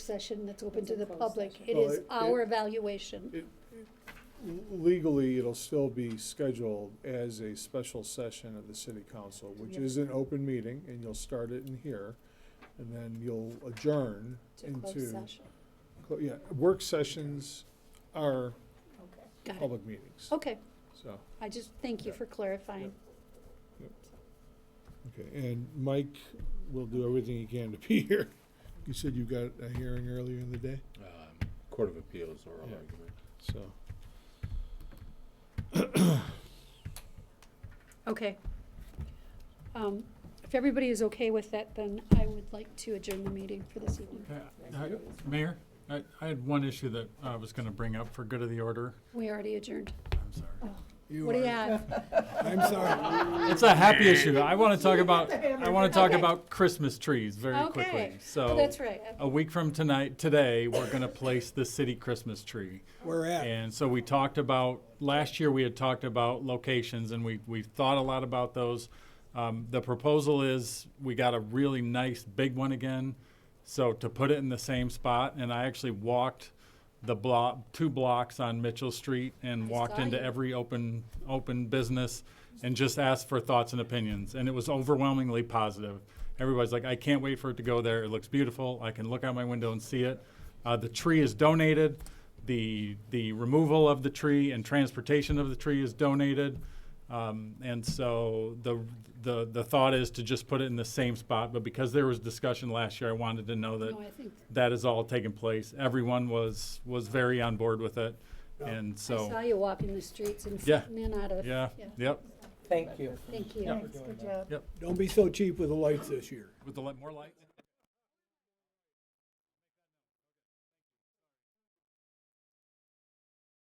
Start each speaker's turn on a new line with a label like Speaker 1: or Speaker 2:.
Speaker 1: session that's open to
Speaker 2: It's a
Speaker 1: the
Speaker 2: closed
Speaker 1: public.
Speaker 2: session.
Speaker 1: It
Speaker 3: Well,
Speaker 1: is
Speaker 3: it-
Speaker 1: our
Speaker 3: it-
Speaker 1: evaluation.
Speaker 3: Legally, it'll still be scheduled as a special session of the city council, which
Speaker 2: Yeah.
Speaker 3: is an open meeting, and you'll start it in here. And then you'll adjourn
Speaker 1: To close
Speaker 3: into,
Speaker 1: session.
Speaker 3: clo- yeah, work sessions are
Speaker 2: Okay.
Speaker 1: Got it. Oh.
Speaker 3: public meetings,
Speaker 1: Okay,
Speaker 3: so.
Speaker 1: I just, thank you
Speaker 3: Yeah.
Speaker 1: for clarifying.
Speaker 3: Okay, and Mike will do everything he can to be here. You said you got a hearing earlier in the day,
Speaker 4: um, Court of Appeals oral
Speaker 3: Yeah.
Speaker 4: argument.
Speaker 3: so.
Speaker 1: Okay. Um, If everybody is okay with that, then I would like to adjourn the meeting for this evening.
Speaker 5: Uh, I- Mayor, I, I had one issue that I was gonna bring up for good of the order.
Speaker 1: We already adjourned.
Speaker 5: I'm sorry.
Speaker 1: What do you have?
Speaker 3: I'm sorry.
Speaker 5: It's a happy issue. I wanna talk about, I wanna talk
Speaker 1: Okay.
Speaker 5: about Christmas trees very
Speaker 1: Okay.
Speaker 5: quickly.
Speaker 1: Oh,
Speaker 5: So,
Speaker 1: That's right.
Speaker 3: Uh,
Speaker 5: a week from tonight, today, we're gonna place the city Christmas tree.
Speaker 6: We're at.
Speaker 5: And so we talked about, last year we had talked about locations and we, we thought a lot about those. Um, the proposal is, we got a really nice big one again, so to put it in the same spot, and I actually walked the block, two blocks on Mitchell Street and
Speaker 1: I
Speaker 5: walked
Speaker 1: saw
Speaker 5: into
Speaker 1: you.
Speaker 5: every open, open business and just asked for thoughts and opinions, and it was overwhelmingly positive. Everybody's like, I can't wait for it to go there, it looks beautiful, I can look out my window and see it. Uh, the tree is donated, the, the removal of the tree and transportation of the tree is donated. Um, and so the, the, the thought is to just put it in the same spot, but because there was discussion last year, I wanted to know that
Speaker 1: No, I think,
Speaker 5: that is all taking place. Everyone was, was very on board with it. And
Speaker 1: I saw
Speaker 5: so,
Speaker 1: you walking the streets and
Speaker 5: Yeah.
Speaker 1: sitting in out of.
Speaker 5: yeah, yep,
Speaker 6: Thank you.
Speaker 1: Thank you.
Speaker 2: Thanks, good job.
Speaker 6: Don't be so cheap with the lights this year.
Speaker 5: with the, li- more lights.